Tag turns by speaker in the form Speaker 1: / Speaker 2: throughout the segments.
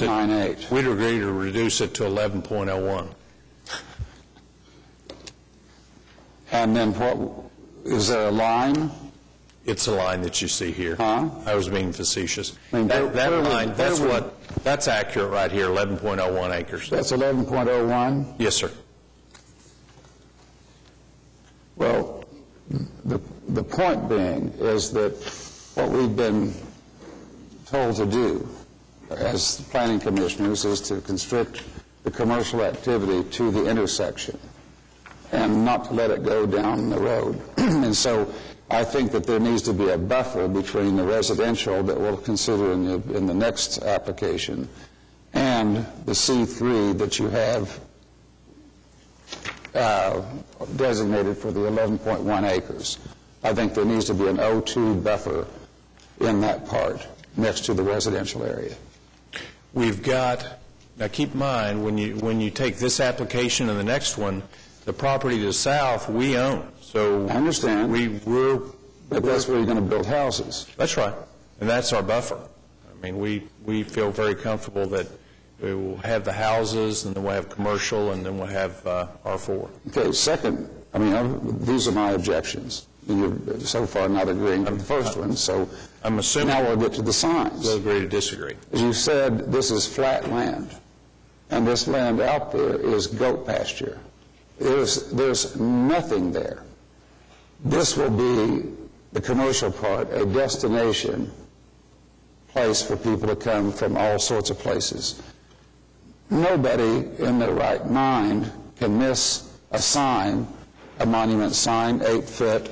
Speaker 1: Nine eight.
Speaker 2: We'd agree to reduce it to 11.01.
Speaker 1: And then what, is there a line?
Speaker 2: It's the line that you see here.
Speaker 1: Huh?
Speaker 2: I was being facetious.
Speaker 1: I mean,
Speaker 2: That that
Speaker 1: where would-
Speaker 2: line, that's
Speaker 1: where would-
Speaker 2: what, that's accurate right here, 11.01 acres.
Speaker 1: That's 11.01?
Speaker 2: Yes, sir.
Speaker 1: Well, the, the point being is that what we've been told to do as planning commissioners is to constrict the commercial activity to the intersection and not to let it go down the road. And so I think that there needs to be a buffer between the residential that we'll consider in the, in the next application and the C3 that you have uh, designated for the 11.1 acres. I think there needs to be an O2 buffer in that part, next to the residential area.
Speaker 2: We've got, now keep in mind, when you, when you take this application and the next one, the property to the south, we own, so.
Speaker 1: I understand.
Speaker 2: We, we're,
Speaker 1: But that's where you're going to build houses.
Speaker 2: that's right, and that's our buffer. I mean, we, we feel very comfortable that we will have the houses, and then we'll have commercial, and then we'll have uh, R4.
Speaker 1: Okay, second, I mean, I'm- these are my objections. And You're so far not agreeing with the first one, so
Speaker 2: I'm assuming-
Speaker 1: now we'll get to the signs.
Speaker 2: We'll agree to disagree.
Speaker 1: As you said, this is flat land, and this land out there is goat pasture. There's, there's nothing there. This will be, the commercial part, a destination place for people to come from all sorts of places. Nobody in their right mind can miss a sign, a monument sign, eight foot,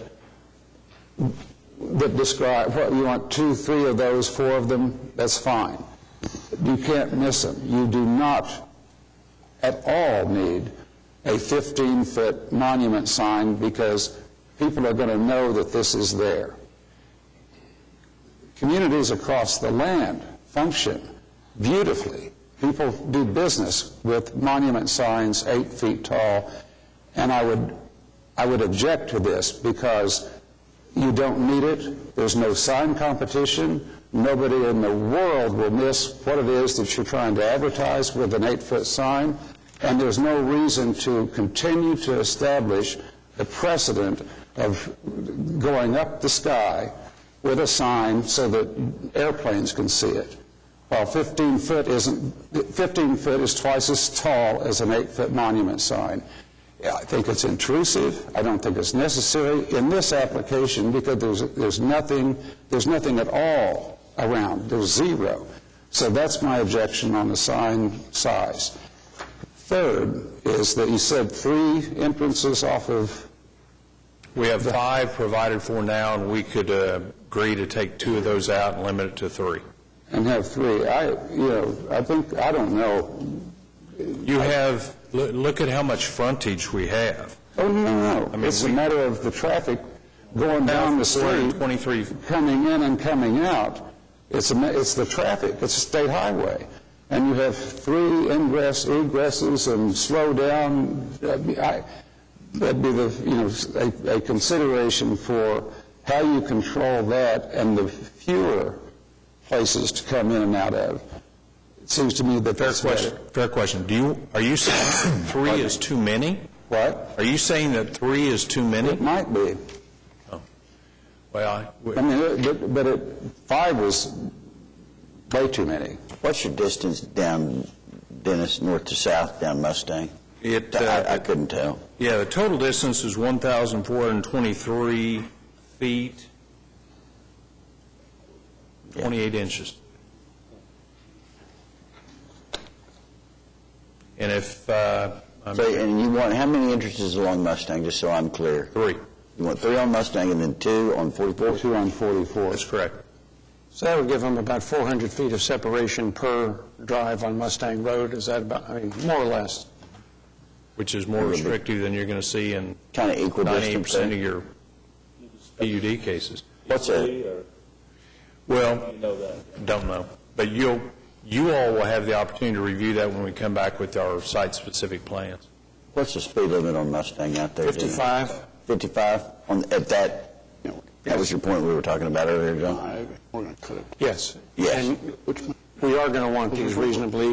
Speaker 1: that describe, what, you want two, three of those, four of them, that's fine. You can't miss them. You do not at all need a 15-foot monument sign because people are going to know that this is there. Communities across the land function beautifully. People do business with monument signs eight feet tall, and I would, I would object to this because you don't need it. There's no sign competition. Nobody in the world will miss what it is that you're trying to advertise with an eight-foot sign. And there's no reason to continue to establish the precedent of going up the sky with a sign so that airplanes can see it. While 15 foot isn't, 15 foot is twice as tall as an eight-foot monument sign. Yeah, I think it's intrusive. I don't think it's necessary in this application because there's, there's nothing, there's nothing at all around. There's zero. So that's my objection on the sign size. Third is that you said three entrances off of,
Speaker 2: We have five provided for now, and we could uh, agree to take two of those out and limit it to three.
Speaker 1: and have three. I, you know, I think, I don't know.
Speaker 2: You have, loo- look at how much frontage we have.
Speaker 1: Oh, no, no,
Speaker 2: mean,
Speaker 1: no. It's a
Speaker 2: we-
Speaker 1: matter of the traffic going down the street.
Speaker 2: 23,
Speaker 1: coming in and coming out, it's, a ma- it's the traffic, it's a state highway. And you have three ingress, egresses and slow down, That'd be- I- that'd be the, you know, s- a, a consideration for how you control that and the fewer places to come in and out of. It seems to me that
Speaker 2: fair
Speaker 1: that's better.
Speaker 2: question, fair question. Do you, are you saying three is too many?
Speaker 1: What?
Speaker 2: Are you saying that three is too many? Oh.
Speaker 1: It might be.
Speaker 2: Well, I-
Speaker 1: I mean, it- but, but it, five was way too many.
Speaker 3: What's your distance down Dennis, north to south, down Mustang?
Speaker 2: it,
Speaker 3: I I
Speaker 2: uh,
Speaker 3: couldn't tell.
Speaker 2: yeah, the total distance is 1,423 feet, 28 inches. And if, uh, I'm
Speaker 3: So, And you want, how many entrances along Mustang, just so I'm clear?
Speaker 2: three,
Speaker 3: You want three on Mustang and then two on 44?
Speaker 1: Two on 44.
Speaker 2: that's correct.
Speaker 4: So that would give them about 400 feet of separation per drive on Mustang Road, is that about, I mean, more or less?
Speaker 2: which is more restrictive than you're going to see in
Speaker 3: Kind of equal
Speaker 2: 98% of
Speaker 3: distance?
Speaker 2: your PUD cases.
Speaker 3: What's a,
Speaker 2: Well, don't know, but you'll, you all will have the opportunity to review that when we come back with our site-specific plans.
Speaker 3: what's the speed limit on Mustang out there? Dennis?
Speaker 4: 55?
Speaker 3: 55 on, at that, that was your point we were talking about earlier, John?
Speaker 5: We're going to cut it.
Speaker 4: Yes.
Speaker 3: Yes.
Speaker 4: And
Speaker 5: Which one?
Speaker 1: we are going to want these reasonably